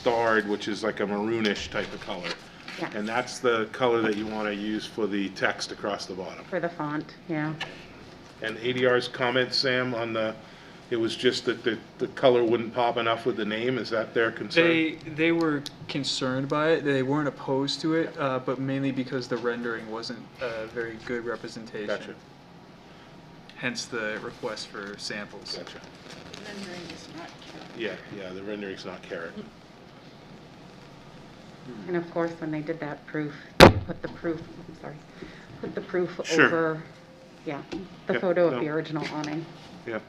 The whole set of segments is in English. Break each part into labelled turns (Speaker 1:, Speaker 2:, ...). Speaker 1: starred, which is like a maroonish type of color.
Speaker 2: Yes.
Speaker 1: And that's the color that you want to use for the text across the bottom.
Speaker 2: for the font, yeah.
Speaker 1: And ADR's comment, Sam, on the, it was just that the, the color wouldn't pop enough with the name, is that their concern?
Speaker 3: They, they were concerned by it, they weren't opposed to it, uh, but mainly because the rendering wasn't a very good representation.
Speaker 1: Gotcha,
Speaker 3: Hence the request for samples.
Speaker 1: gotcha.
Speaker 4: Rendering is not counted.
Speaker 1: Yeah, yeah, the rendering's not carrot.
Speaker 2: And of course, when they did that proof, they put the proof, I'm sorry, put the proof
Speaker 1: Sure.
Speaker 2: over, yeah, the
Speaker 1: Yeah,
Speaker 2: photo of the
Speaker 1: no.
Speaker 2: original awning.
Speaker 1: Yeah.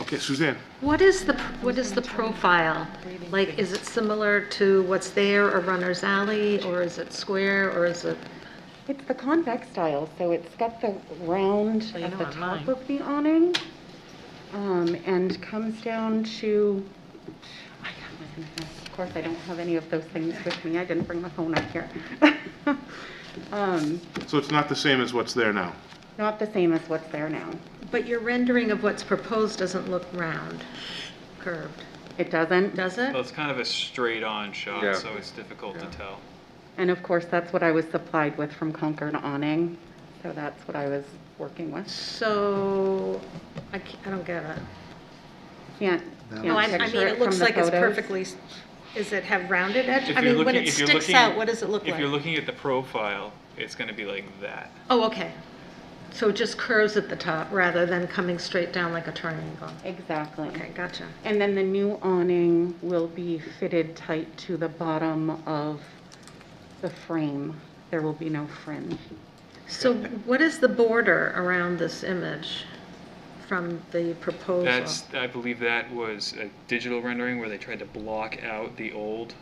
Speaker 1: Okay, Suzanne?
Speaker 5: What is the, what is the profile? Like, is it similar to what's there, a runner's alley, or is it square, or is it?
Speaker 2: It's the convex style, so it's got the round
Speaker 5: you
Speaker 2: at
Speaker 5: know
Speaker 2: the
Speaker 5: I'm
Speaker 2: top
Speaker 5: lying.
Speaker 2: of the awning, um, and comes down to, I got my phone here. of course, I don't have any of those things with me, I didn't bring my phone up here. Um,
Speaker 1: So it's not the same as what's there now?
Speaker 2: Not the same as what's there now.
Speaker 5: But your rendering of what's proposed doesn't look round, curved,
Speaker 2: It doesn't,
Speaker 5: does it?
Speaker 6: Well, it's kind of a straight-on
Speaker 1: Yeah.
Speaker 6: shot, so it's difficult to tell.
Speaker 2: And of course, that's what I was supplied with from Concord Awning, so that's what I was working with.
Speaker 5: So, I ca- I don't get it.
Speaker 2: Can't,
Speaker 5: No, I,
Speaker 2: can't
Speaker 5: I mean,
Speaker 2: picture it
Speaker 5: it
Speaker 2: from
Speaker 5: looks
Speaker 2: the
Speaker 5: like it's
Speaker 2: photos.
Speaker 5: perfectly, s- is it have rounded edge?
Speaker 6: If
Speaker 5: I
Speaker 6: you're
Speaker 5: mean, when
Speaker 6: looking-
Speaker 5: it
Speaker 6: if you're
Speaker 5: sticks
Speaker 6: looking-
Speaker 5: out, what does it look
Speaker 6: If you're
Speaker 5: like?
Speaker 6: looking at the profile, it's gonna be like that.
Speaker 5: Oh, okay. So it just curves at the top rather than coming straight down like a triangle.
Speaker 2: Exactly.
Speaker 5: Okay, gotcha.
Speaker 2: And then the new awning will be fitted tight to the bottom of the frame. There will be no fringe.
Speaker 5: So what is the border around this image from the proposal?
Speaker 6: That's, I believe that was a digital rendering where they tried to block out the old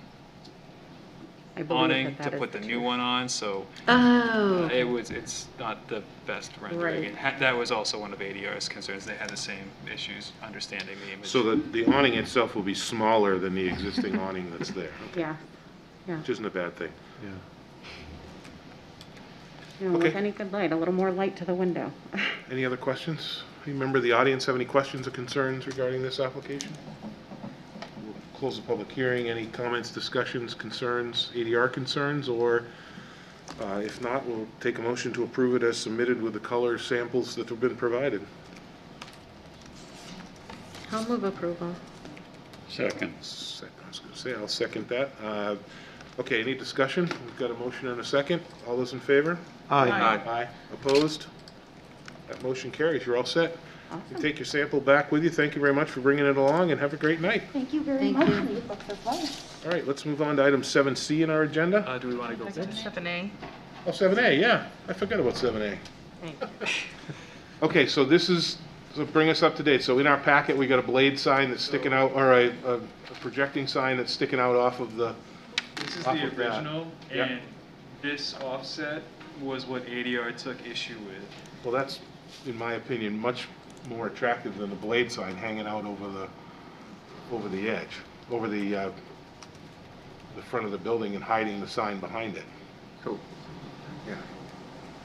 Speaker 2: I believe
Speaker 6: awning
Speaker 2: that
Speaker 6: to
Speaker 2: that is
Speaker 6: put the new one on, so
Speaker 5: Oh,
Speaker 6: it was, it's not the best rendering.
Speaker 5: Right.
Speaker 6: And ha- that was also one of ADR's concerns, they had the same issues understanding the image.
Speaker 1: So the, the awning itself will be smaller than the existing awning that's there,
Speaker 2: Yeah.
Speaker 1: which isn't a bad thing.
Speaker 2: You know, with
Speaker 1: Okay.
Speaker 2: any good light, a little more light to the window.
Speaker 1: Any other questions? Any member of the audience have any questions or concerns regarding this application? We'll Close the public hearing. Any comments, discussions, concerns, ADR concerns, or uh, if not, we'll take a motion to approve it as submitted with the color samples that have been provided.
Speaker 5: I'll move approval.
Speaker 7: Second.
Speaker 1: Sec- I was going to say, I'll second that. Uh, Okay, any discussion? We've got a motion and a second. All those in favor?
Speaker 7: Aye.
Speaker 1: Aye. Opposed? That motion carries. You're all set. You Take your sample back with you. Thank you very much for bringing it along, and have a great night.
Speaker 2: Thank you very
Speaker 5: Thank
Speaker 2: much.
Speaker 5: you.
Speaker 2: You look so fun.
Speaker 1: All right, let's move on to item 7C in our agenda.
Speaker 3: Uh, do we want to go?
Speaker 1: Oh, 7A, yeah, I forgot about 7A. Okay, so this is, so bring us up to date. So in our packet, we got a blade sign that's sticking out, or a a projecting sign that's sticking out off of the,
Speaker 6: This is
Speaker 1: Off
Speaker 6: the
Speaker 1: of that.
Speaker 6: original,
Speaker 1: Yep.
Speaker 6: and this offset was what ADR took issue with.
Speaker 1: well, that's, in my opinion, much more attractive than the blade sign hanging out over the, over the edge, over the, uh, the front of the building and hiding the sign behind it.
Speaker 3: Cool.
Speaker 1: Yeah.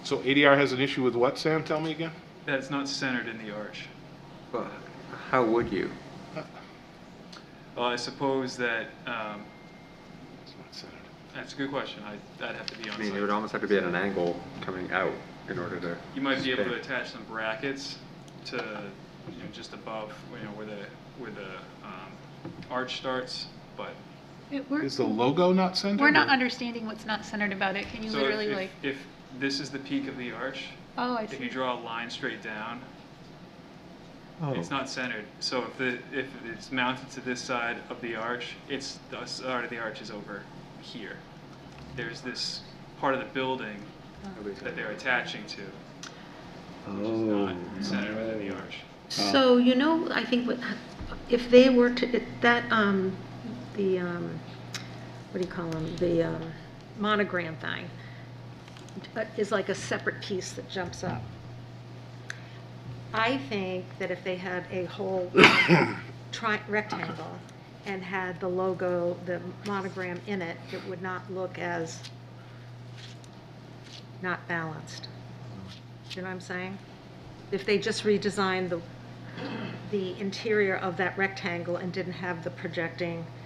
Speaker 1: So ADR has an issue with what, Sam? Tell me again?
Speaker 6: That's not centered in the arch.
Speaker 8: Well, how would you?
Speaker 6: Well, I suppose that, um,
Speaker 1: It's not centered.
Speaker 6: that's a good question, I, I'd have to be on
Speaker 8: I
Speaker 6: site.
Speaker 8: mean, it would almost have to be at an angle coming out in order to.
Speaker 6: You might be able to
Speaker 8: stay.
Speaker 6: attach some brackets to, you know, just above, you know, where the, where the um, arch starts, but.
Speaker 4: It- We're,
Speaker 1: Is the logo not centered?
Speaker 4: we're not
Speaker 1: or-
Speaker 4: understanding what's not centered about it. Can you
Speaker 6: so if-
Speaker 4: literally
Speaker 6: if-
Speaker 4: like,
Speaker 6: If this is the peak of the arch,
Speaker 4: oh, I
Speaker 6: if you
Speaker 4: see.
Speaker 6: draw a line straight down, it's not centered. So if the, if it's mounted to this side of the arch, it's, the side of the arch is over here. There's this part of the building
Speaker 4: Uh-huh.
Speaker 6: that they're attaching to, which is
Speaker 8: Oh.
Speaker 6: not centered within the arch.
Speaker 5: So, you know, I think what, if they were to, if that, um, the, um, what do you call them, the, um, monogram thing uh, is like a separate piece that jumps up. I think that if they had a whole tri, rectangle and had the logo, the monogram in it, it would not look as not balanced. You know what I'm saying? If they just redesigned the, the interior of that rectangle and didn't have the projecting